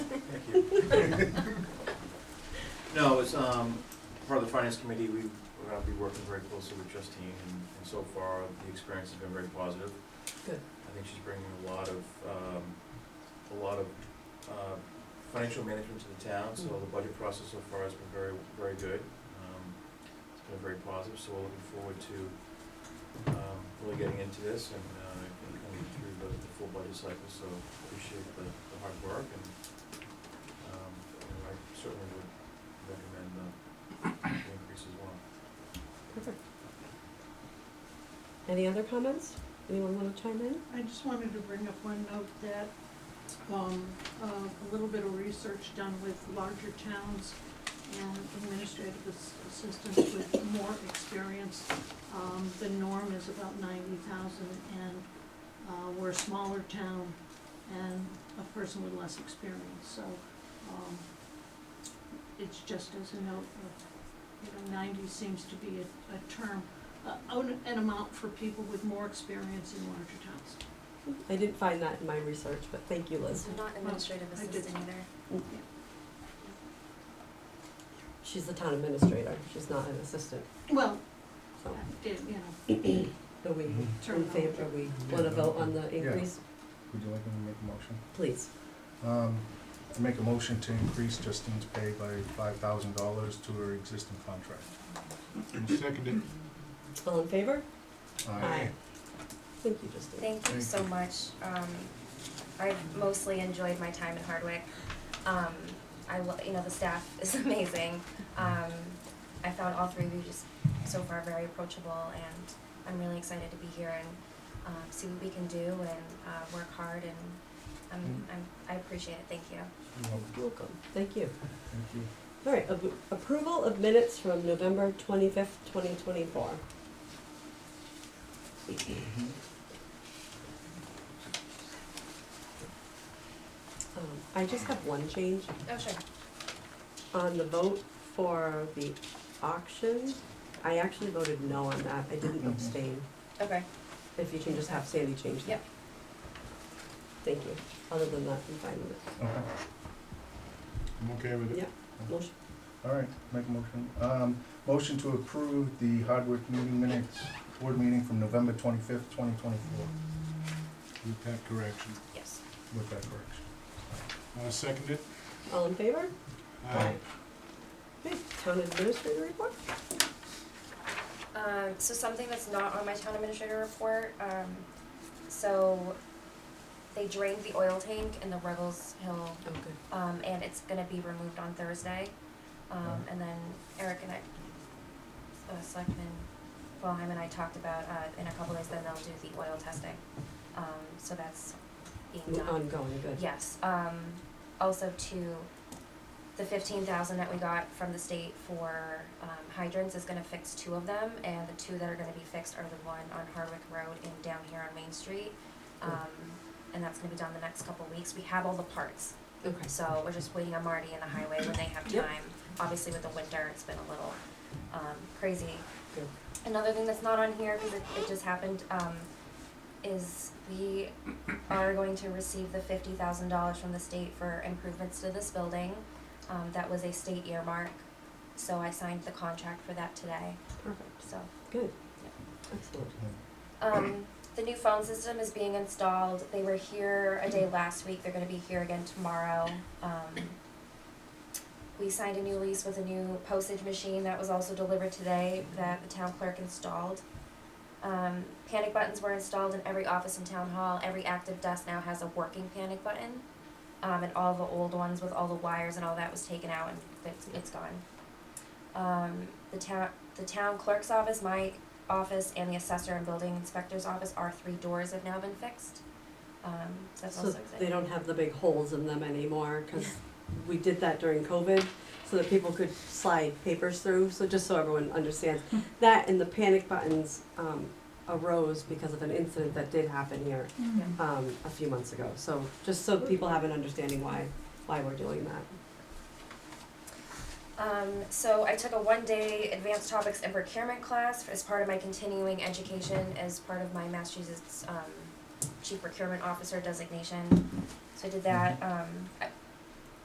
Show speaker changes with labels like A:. A: No, it was, um, part of the finance committee, we, we're gonna be working very closely with Justine, and, and so far, the experience has been very positive.
B: Good.
A: I think she's bringing a lot of, um, a lot of, uh, financial management to the town, so the budget process so far has been very, very good. Um, It's been very positive, so we're looking forward to, um, really getting into this and, uh, and coming through the, the full budget cycle, so appreciate the, the hard work and, um, you know, I certainly would recommend uh, the, the increase as well.
B: Perfect. Any other comments? Anyone want to chime in?
C: I just wanted to bring up one note that, um, uh, a little bit of research done with larger towns and administrative ass- assistants with more experience, um, the norm is about ninety thousand and, uh, we're a smaller town and a person with less experience, so, um, it's just as a note of, you know, ninety seems to be a, a term, uh, an an amount for people with more experience in larger towns.
B: I didn't find that in my research, but thank you, Liz.
D: I'm not administrative
C: I did.
D: assistant either.
B: She's the town administrator. She's not an assistant.
C: Well,
B: So,
C: it- you know,
B: do we,
E: Mm-hmm.
B: in
C: terminology.
B: favor, we want to vote on the increase?
E: Would you like me to make a motion?
B: Please.
E: Um, I make a motion to increase Justine's pay by five thousand dollars to her existing contract.
F: Seconded.
B: All in favor?
E: Aye.
B: Thank you, Justine.
D: Thank
E: Thank
D: you so
E: you.
D: much. Um, I've mostly enjoyed my time in Hardwick. Um, I lo- you know, the staff is amazing. Um, I found all three of you just so far very approachable and I'm really excited to be here and, um, see what we can do and, uh, work hard and I'm, I'm, I appreciate it. Thank you.
E: Well,
B: Welcome. Thank you.
E: Thank you.
B: All right, ab- approval of minutes from November twenty-fifth, twenty twenty-four. Um, I just have one change
D: Oh, sure.
B: on the vote for the auction. I actually voted no on that, I didn't
E: Mhm.
B: abstain.
D: Okay.
B: If you can just have Sandy change that.
D: Yep.
B: Thank you. Other than that, I'm fine with it.
E: Okay,
F: I'm okay with
B: Yeah.
F: it.
B: Motion,
E: all right, make a motion. Um, motion to approve the Hardwick meeting minutes, board meeting from November twenty-fifth, twenty twenty-four,
F: With that correction.
D: Yes.
E: with that correction.
F: Uh, seconded.
B: all in favor?
F: Aye.
B: Okay, town administrator report?
D: Um, so something that's not on my town administrator report, um, so they drained the oil tank in the Ruggles Hill,
B: Okay.
D: um, and it's gonna be removed on Thursday. Um, and then Eric and I, uh, Selectman Boheim and I talked about, uh, in a couple days, then they'll do the oil testing. Um, so that's being done.
B: Ongoing, good.
D: Yes, um, also to, the fifteen thousand that we got from the state for, um, hydrants is gonna fix two of them, and the two that are gonna be fixed are the one on Hardwick Road and down here on Main Street. Um, and that's gonna be done the next couple weeks, we have all the parts,
B: Okay.
D: so we're just waiting on Marty and the highway when they have
B: Yep.
D: time. Obviously with the winter, it's been a little, um, crazy,
B: Good.
D: Another thing that's not on here, because it, it just happened, um, is we are going to receive the fifty thousand dollars from the state for improvements to this building. Um, that was a state earmark, so I signed the contract for that today,
B: Perfect.
D: so.
B: Good. Excellent.
D: Um, the new phone system is being installed. They were here a day last week. They're gonna be here again tomorrow. Um, we signed a new lease with a new postage machine that was also delivered today that the town clerk installed. Um, panic buttons were installed in every office in town hall. Every active desk now has a working panic button. Um, and all the old ones with all the wires and all that was taken out and it's, it's gone. Um, the town, the town clerk's office, my office and the assessor and building inspector's office, our three doors have now been fixed. Um, that's also
B: So
D: exciting.
B: they don't have the big holes in them anymore, because we did that during COVID, so that people could slide papers through, so just so everyone understands.
D: Hmm.
B: That and the panic buttons, um, arose because of an incident that did happen here, um, a few months ago. So, just
D: Hmm.
B: so people have an understanding why, why we're doing that.
D: Um, so I took a one-day advanced topics and procurement class as part of my continuing education as part of my Massachusetts um, chief procurement officer designation. So I did that. Um, I-